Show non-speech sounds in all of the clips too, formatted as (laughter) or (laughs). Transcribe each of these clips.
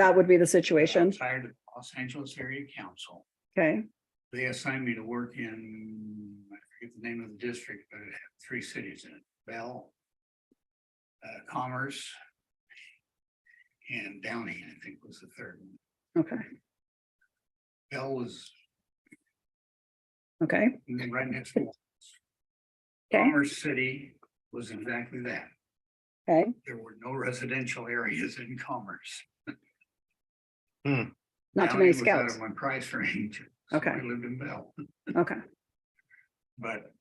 That would be the situation. Tired of Los Angeles Area Council. Okay, They assigned me to work in, I forget the name of the district, but it had three cities in it, Bell. Uh, Commerce. And Downey, I think was the third one. okay, Bell was okay, right next to. okay, Commerce City was exactly that. okay. There were no residential areas in Commerce. Not too Downey many was out of scouts. My price range. so Okay. I lived in Bell. Okay, But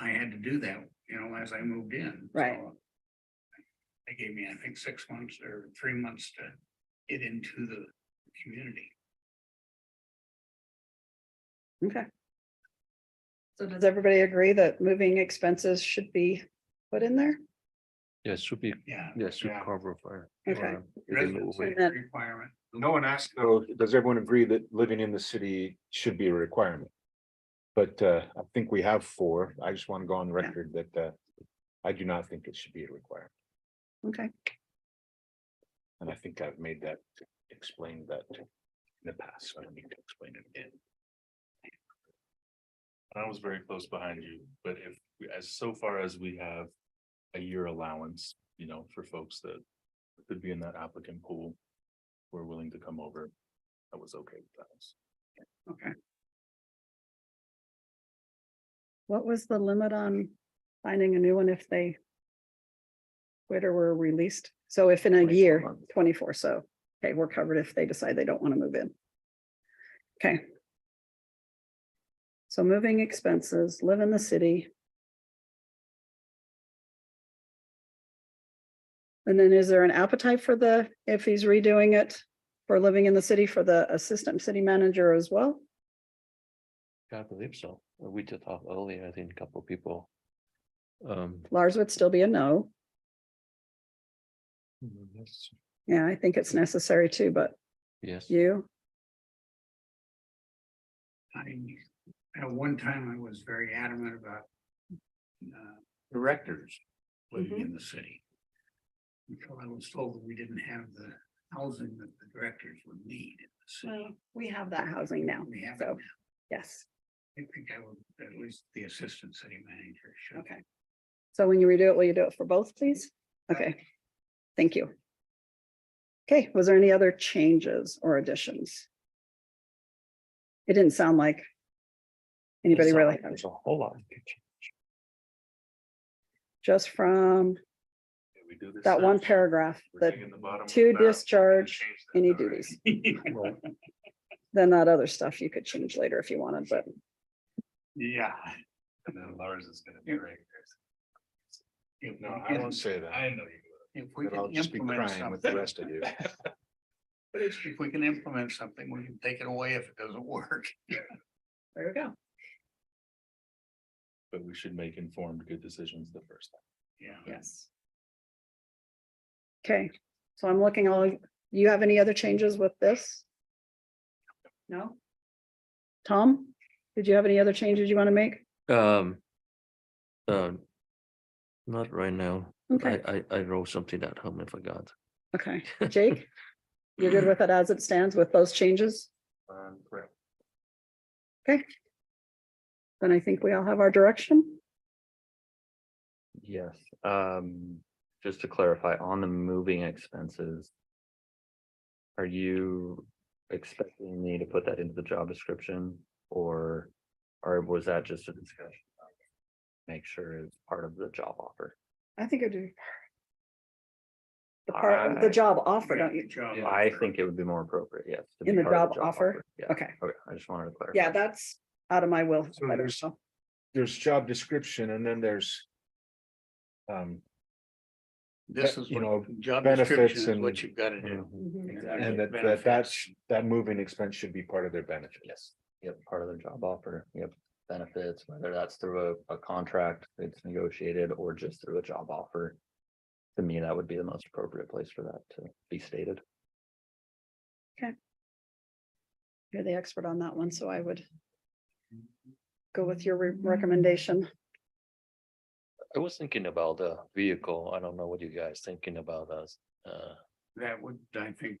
I had to do that, you know, as I moved in. Right. so They gave me, I think, six months or three months to get into the community. okay. So does everybody agree that moving expenses should be put in there? Yeah, it should be, Yeah. yeah, it should Yeah. cover for. Okay. um, within the Residency way. That- requirement. No one asked, though, does everyone agree that living in the city should be a requirement? But uh, I think we have four. I just want to go on record that uh, I do not think it should be a requirement. Okay, And I think I've made that, explained that in the past. so I don't need to explain it again. I was very close behind you, but if, we- as so far as we have a year allowance, you know, for folks that could be in that applicant pool, were willing to come over, I was okay with that. Okay, what was the limit on finding a new one if they quit or were released? So if in a 24 year, months. twenty-four, so, okay, we're covered if they decide they don't want to move in. Okay. So moving expenses, live in the city. And then is there an appetite for the, if he's redoing it for living in the city for the assistant city manager as well? Yeah, I believe so. We did talk earlier, I think a couple people. Um, Lars would still be a no. Mm-hmm, mm, that's- Yeah, I think it's necessary too, but yes, you, I, at one time, I was very adamant about uh, directors Mm-hmm. living in the city. Until I was told that we didn't have the housing that the directors would need in the city. we have that housing now, We have it so, yes, I think I would, at least the assistant city manager should. okay. So when you redo it, will you do it for both, please? Uh, Okay, thank you. Okay, was there any other changes or additions? It didn't sound like anybody it's not really, like There's a whole lot. of kitchen. just from We do this that one search, paragraph we're that digging the bottom of the to barrel, we can discharge change that, any all right. duties. Well, Then that other stuff you could change later if you wanted, but (laughs) Yeah. And then Lars is gonna be right If No, we I can- won't say that. I know you. If we But I'll can just be implement crying with the something, rest of you. (laughs) but it's- if we can implement something, we can take it away if it doesn't work. there you go. But we should make informed, good decisions the first time. Yeah. Yes. Okay, so I'm looking all, do you have any other changes with this? No? Tom, did you have any other changes you want to make? Um. um, Not right now. Okay, I, I, I wrote something at home and forgot. (laughs) okay. Jake? You're good with it as it stands with those changes? Um, correct. Then I think we all have our direction. Yes, um, just to clarify, on the moving expenses. Are you expecting me to put that into the job description or, or was that just a discussion? Make sure it's part of the job offer. I think I do. The part, of the job offer, don't you? Job I offer. think it would be more appropriate, yes. to In be the part of job offer? Yeah, Okay, okay, I just wanted to clarify. yeah, that's out of my will. So there's- There's job description and then there's um, This is, you what- know, job benefits description is what and- you've got to do. Mhm. and Exactly, that, that, that's, that moving expense should be part of their benefit. yes, yep, part of their job offer, yep, benefits, whether that's through a, a contract that's negotiated or just through a job offer. To me, that would be the most appropriate place for that to be stated. You're the expert on that one, so I would go with your re- recommendation. I was thinking about the vehicle. I don't know what you guys thinking about us. Uh, that would, I think,